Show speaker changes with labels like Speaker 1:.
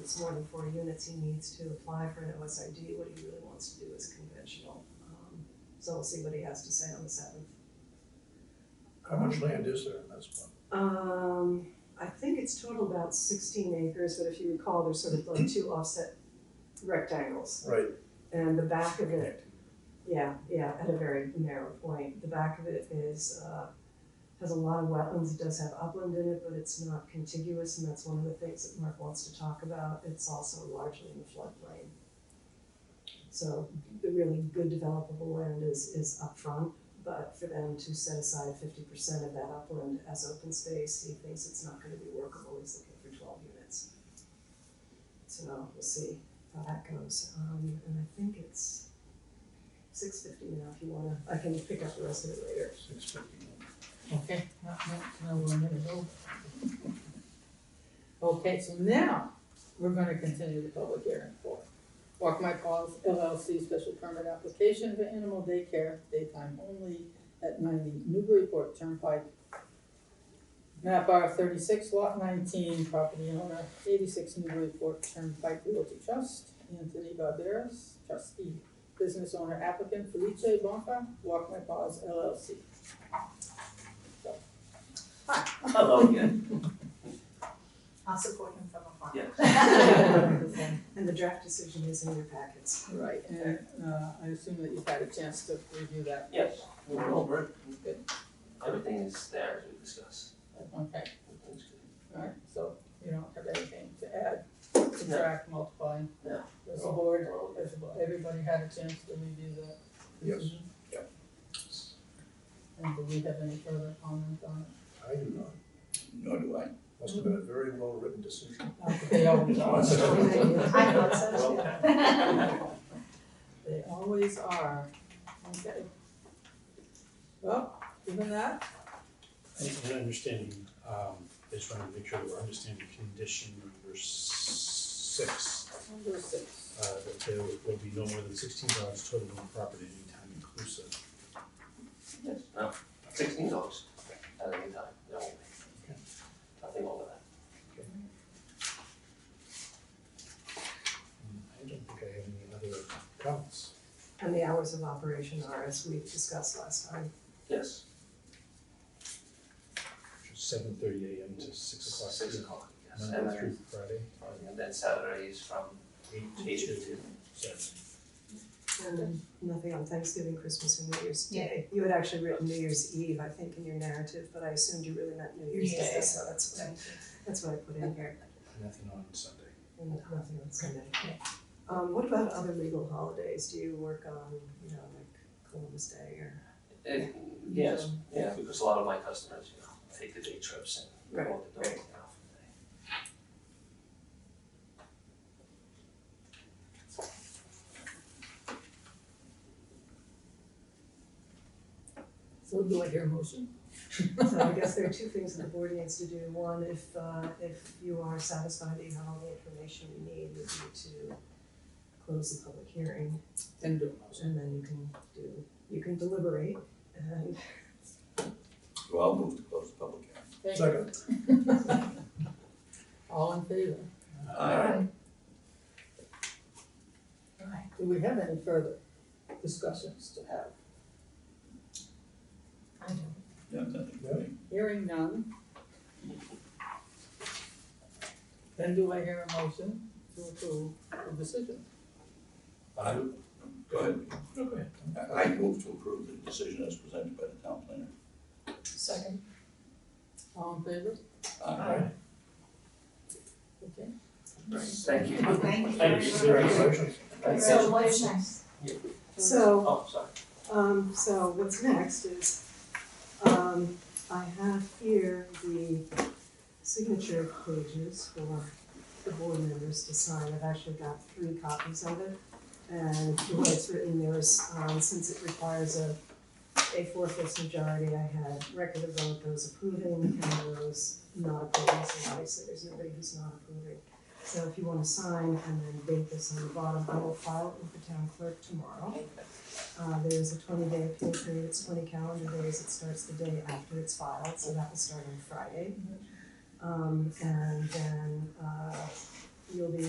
Speaker 1: it's more than four units, he needs to apply for an OSID. What he really wants to do is conventional. Um, So we'll see what he has to say on the seventh.
Speaker 2: How much land is there in this one?
Speaker 1: Um, I think it's total about sixteen acres, but if you recall, there's sort of like two offset rectangles.
Speaker 2: Right,
Speaker 1: And the back of it, yeah, yeah, at a very narrow point, the back of it is, uh, has a lot of wetlands, it does have upland in it, but it's not contiguous, and that's one of the things that Mark wants to talk about, it's also largely in the floodplain. So the really good developable land is, is upfront, but for them to set aside fifty percent of that upland as open space, he thinks it's not gonna be workable, he's looking for twelve units. So we'll see how that goes, um, and I think it's six fifty now, if you wanna, I can pick up the rest of it later.
Speaker 2: six fifty.
Speaker 3: Okay, now, now, now we're gonna go. Oh. Okay, so now, we're gonna continue the public hearing for Walk My Paws LLC special permit application for animal daycare, daytime only, at ninety Newburyport Turnpike. Map R thirty-six, lot nineteen, property owner, eighty-six Newburyport Turnpike Realty Trust, Anthony Barberis, trustee, business owner applicant Felice Bonfa, Walk My Paws LLC.
Speaker 4: Hello again.
Speaker 5: I'll support him from afar.
Speaker 1: And the draft decision is in your packets.
Speaker 3: Right, and uh, I assume that you've had a chance to review that.
Speaker 4: Yes, we went over it.
Speaker 3: Good.
Speaker 4: Everything is there as we discussed.
Speaker 3: Okay,
Speaker 4: Everything's good.
Speaker 3: all right, so you don't have anything to add, subtract, multiply?
Speaker 4: No.
Speaker 3: Does the board,
Speaker 4: We're all good.
Speaker 3: does the bo- everybody had a chance to review that?
Speaker 2: Yes.
Speaker 3: Yep. And do we have any further comment on it?
Speaker 2: I do not.
Speaker 6: Nor do I.
Speaker 2: Must have been a very well-written decision.
Speaker 3: Not that They always are.
Speaker 1: I know, it's-
Speaker 3: They always are. Okay. Well, given that,
Speaker 7: And understanding, um, I just wanted to make sure that we're understanding condition number six,
Speaker 3: number six.
Speaker 7: uh, that there will be no more than sixteen dogs total on the property at any time inclusive.
Speaker 4: Yes, no, sixteen dollars at any time, no. Nothing over that.
Speaker 7: I don't think I have any other comments.
Speaker 1: And the hours of operation are as we discussed last time.
Speaker 4: Yes,
Speaker 7: Seven thirty AM to six o'clock.
Speaker 4: six o'clock, yes, and
Speaker 7: Monday through
Speaker 4: then,
Speaker 7: Friday,
Speaker 4: and then Saturday is from
Speaker 7: eight
Speaker 4: eight
Speaker 7: to
Speaker 4: to two.
Speaker 7: seven.
Speaker 1: And nothing on Thanksgiving, Christmas, or New Year's
Speaker 5: Yeah.
Speaker 1: Day. You had actually written New Year's Eve, I think, in your narrative, but I assumed you really meant New Year's Day,
Speaker 5: Yeah.
Speaker 1: so that's what I, that's what I put in here.
Speaker 7: Nothing on Sunday.
Speaker 1: And nothing on Sunday. Um, what about other legal holidays? Do you work on, you know, like Columbus Day or?
Speaker 4: It, Eh, yes, yeah, because a lot of my customers, you know, take the day trips and go to the dog, you know, for the day.
Speaker 3: So do I hear a motion?
Speaker 1: So I guess there are two things that the board needs to do. One, if, uh, if you are satisfied that you have all the information you need, would be to close the public hearing.
Speaker 3: Then do a motion.
Speaker 1: And then you can do, you can deliberate and
Speaker 6: So I'll move to close the public hearing.
Speaker 3: Thank you.
Speaker 2: Second.
Speaker 3: All in favor?
Speaker 6: Aye.
Speaker 3: Do we have any further discussions to have?
Speaker 6: Yeah, nothing for me.
Speaker 3: Hearing none. Then do I hear a motion to approve the decision?
Speaker 6: I, go ahead.
Speaker 7: Okay.
Speaker 6: I- I move to approve the decision as presented by the town planner.
Speaker 5: Second.
Speaker 3: All in favor?
Speaker 6: Aye.
Speaker 3: Okay.
Speaker 4: Right, thank you.
Speaker 5: Thank you.
Speaker 4: Thank you.
Speaker 2: Congratulations.
Speaker 5: So what's next?
Speaker 1: so
Speaker 4: Oh, sorry.
Speaker 1: Um, so what's next is, um, I have here the signature pages for the board members to sign. I've actually got three copies of it. And the way it's written, there is, um, since it requires a, a four-fifths majority, I had record of vote, those approving and those not approving, so obviously there's nobody who's not approving. So if you wanna sign and then date this on the bottom, I will file it with the town clerk tomorrow. Uh, there's a twenty day appeal period, it's twenty calendar days, it starts the day after it's filed, so that will start on Friday. Um, and then, uh, you'll be